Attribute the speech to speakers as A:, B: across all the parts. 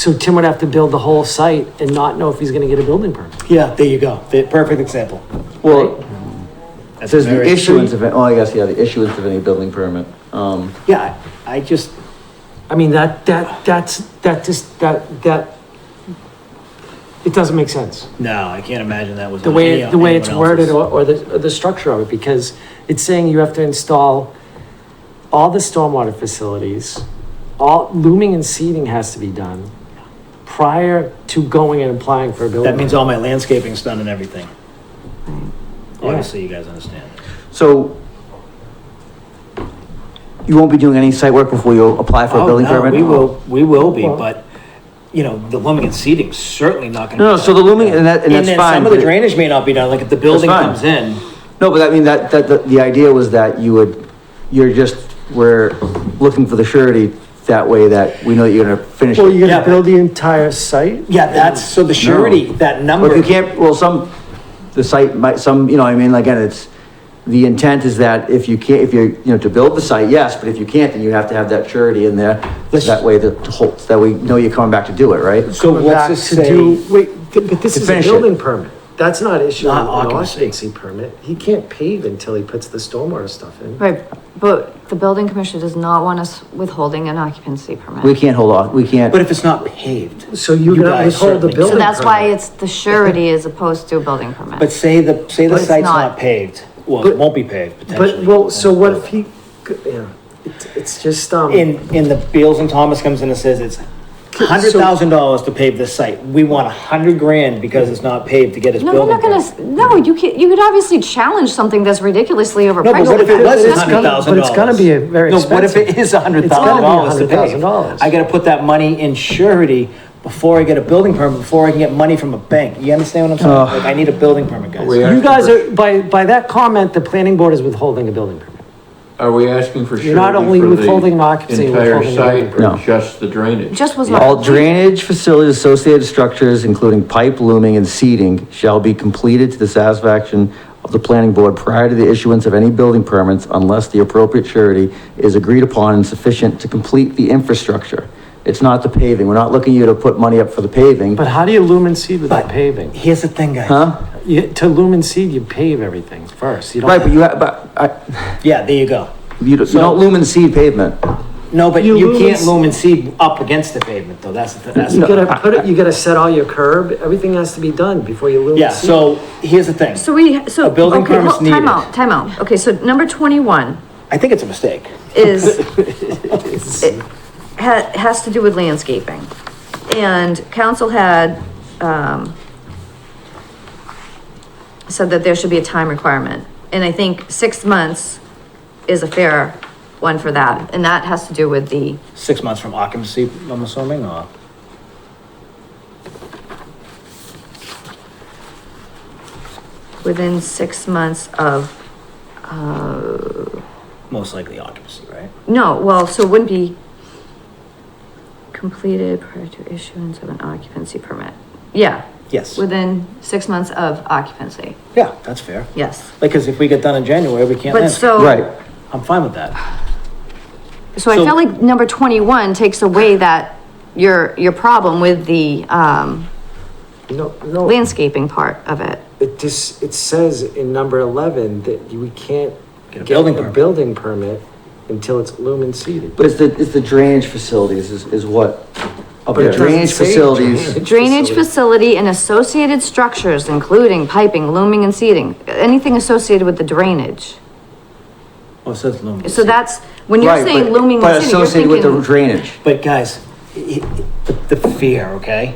A: So Tim would have to build the whole site and not know if he's gonna get a building permit.
B: Yeah, there you go. The Perfect example.
C: Well,
B: That's
C: there's the
B: very-
C: issuance of, oh, I guess, yeah, the issuance of any building permit. Um,
B: Yeah, I I just,
A: I mean, that, that, that's, that just, that, that, it doesn't make sense.
B: no, I can't imagine that was.
A: The
B: on
A: way,
B: any-
A: the way it's
B: anyone else's.
A: worded or, or the, or the structure of it, because it's saying you have to install all the stormwater facilities, all looming and seeding has to be done prior to going and applying for a building.
B: That means all my landscaping's done and everything.
A: Yeah.
B: Obviously, you guys understand.
C: so you won't be doing any site work before you apply for a
B: Oh,
C: building
B: no,
C: permit?
B: We will, we will be,
A: Well-
B: but, you know, the looming and seating's certainly not gonna.
C: No,
B: be
C: no, so the
B: done.
C: looming, and that, and that's
B: then
C: fine.
B: Some of
C: but
B: the
C: it-
B: drainage may not be done, like if the building
C: fine.
B: comes in,
C: No, but I mean, that, that, the, the idea was that you would, you're just, we're looking for the surety that way that we know that you're gonna finish
A: Well,
C: it.
A: you're
B: gonna
A: gonna
B: build
A: build the entire site?
B: yeah, that's, so the surety, that
C: But
B: number.
C: if you can't, well, some, the site might, some, you know, I mean, again, it's, the intent is that if you can't, if you're, you know, to build the site, yes, but if you can't, then you have to have that surety in there. so
B: Let's-
C: That way the whole, so that we know you're coming back to do it, right?
B: So
A: Coming
B: let's
A: back
B: just
A: to
B: say-
A: do- Wait, th- but this
C: To
A: is a
C: finish it.
A: building permit. That's not issuing an
B: Not occupancy.
A: occupancy permit. He can't pave until he puts the stormwater stuff in.
D: Right, but the building commissioner does not want us withholding an occupancy
C: We
D: permit.
C: can't hold off, we can't,
B: But if it's not paved.
A: So you
B: You
A: gotta
B: guys
A: withhold the
B: certainly- So
A: building
D: So that's why
A: permit.
D: it's the surety as opposed to a building permit.
B: But say the, say the
D: But it's
B: site's
D: not.
B: not paved, well,
A: But-
B: it won't be paved
A: But,
B: potentially.
A: well, so what if he, g- yeah, it's, it's just, um.
B: In, in the, Beals and Thomas comes in and says it's hundred thousand dollars to pave this site, we want a hundred grand because it's not paved to get his
D: No, we're
B: building.
D: not gonna,
B: permit.
D: s- no, you can, you could obviously challenge something that's ridiculously overpriced.
B: No, but what if it
A: It's
B: was a
A: gonna-
B: hundred thousand
A: but
B: dollars?
A: it's gonna be a very
B: What if it
A: expensive.
B: is a hundred
A: It's gotta
B: thousand
A: be
B: dollars to pave?
A: $100,000.
B: I gotta put that money in surety before I get a building permit, before I can get money from a bank. You understand what I'm saying? Like, I need a building permit,
E: We
B: guys.
E: are-
A: You guys are, by, by that comment, the planning board is withholding a building permit.
E: Are we asking for
A: You're not only
E: surety for the
A: withholding occupancy, you're
E: entire
A: withholding the
E: site or
C: No.
E: just the drainage?
D: Just was not.
C: all drainage facilities, associated structures, including pipe, looming, and seeding shall be completed to the satisfaction of the planning board prior to the issuance of any building permits unless the appropriate surety is agreed upon and sufficient to complete the infrastructure. It's not the paving. We're not looking you to put money up for the paving.
A: But how do you lumen seed without paving?
B: Here's the thing, guys.
A: You, to lumen seed, you pave everything first. You don't.
C: Right, but you, ha- but I,
B: Yeah, there you go.
C: you don't- you don't lumen seed pavement.
B: No, but
A: You
B: you
A: lose-
B: can't loom and seed up against the pavement though. That's, the- that's,
A: You
B: the-
A: gotta put it, you gotta set all your curb, everything has to be done before you lumen seed.
B: yeah, so here's the thing.
D: So we, so.
B: A building
D: okay,
B: permit's
D: hold-
B: needed.
D: Time out, time out. Okay, so number twenty-one
B: I think it's a mistake.
D: is, it ha- has to do with landscaping. And council had, um, said that there should be a time requirement. And I think six months is a fair one for that, and that has to do with the,
B: Six months from occupancy, I'm assuming, or?
D: within six months of, uh,
B: most likely occupancy, right?
D: No, well, so it wouldn't be completed prior to issuance of an occupancy permit. Yeah,
B: Yes.
D: within six months of occupancy,
B: Yeah, that's fair.
D: yes.
B: Like, cause if we get done in January, we can't
D: But
B: land.
C: Right.
D: so,
B: I'm fine with that.
D: so I
B: so-
D: feel like number twenty-one takes away that, your, your problem with the, um,
A: No, no,
D: landscaping part of it.
A: it just, it says in number eleven that you- we can't
B: Get a
A: get
B: building
A: a
B: permit.
A: building permit until it's lumen seeded.
C: But it's the, it's the drainage facilities is, is what? Up
A: But it
C: there,
A: doesn't
C: drainage
A: say
C: facilities.
A: drainage.
D: Drainage
A: Facility.
D: facility and associated structures, including piping, looming and seating, anything associated with the drainage.
B: Well, Oh, it says loom.
D: So that's, when you're
C: Right,
D: saying
C: but-
D: looming
C: But
D: and seating, you're
C: associated with the
D: thinking.
C: drainage.
B: But guys, i- i- the, the fear, okay?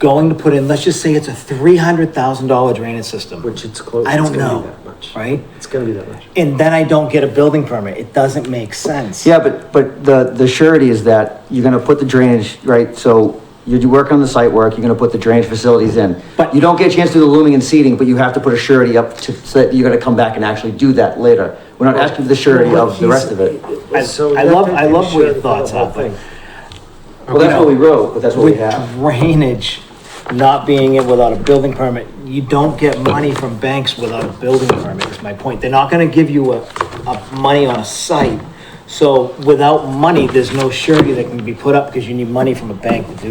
B: Going to put in, let's just say it's a three hundred thousand dollar drainage system.
A: Which it's close.
B: I
A: it's
B: don't
A: gonna be
B: know,
A: that much.
B: right?
A: It's gonna be that much.
B: And then I don't get a building permit. It doesn't make sense.
C: Yeah, but, but the, the surety is that you're gonna put the drainage, right, so you do work on the site work, you're gonna put the drainage facilities in.
B: But-
C: You don't get a chance to do the looming and seeding, but you have to put a surety up to, so that you're gonna come back and actually do that later. We're not asking for the surety of the rest of it.
B: I-
A: So
B: I
A: you have
B: love-
A: to
B: I love
A: make
B: where
A: sure you
B: your
A: put the
B: thoughts
A: whole
B: are, but-
A: thing.
C: Well, that's what we wrote, but that's what we
B: With
C: have.
B: drainage not being in without a building permit, you don't get money from banks without a building permit, is my point. They're not gonna give you a, a money on a site. So without money, there's no surety that can be put up because you need money from a bank to do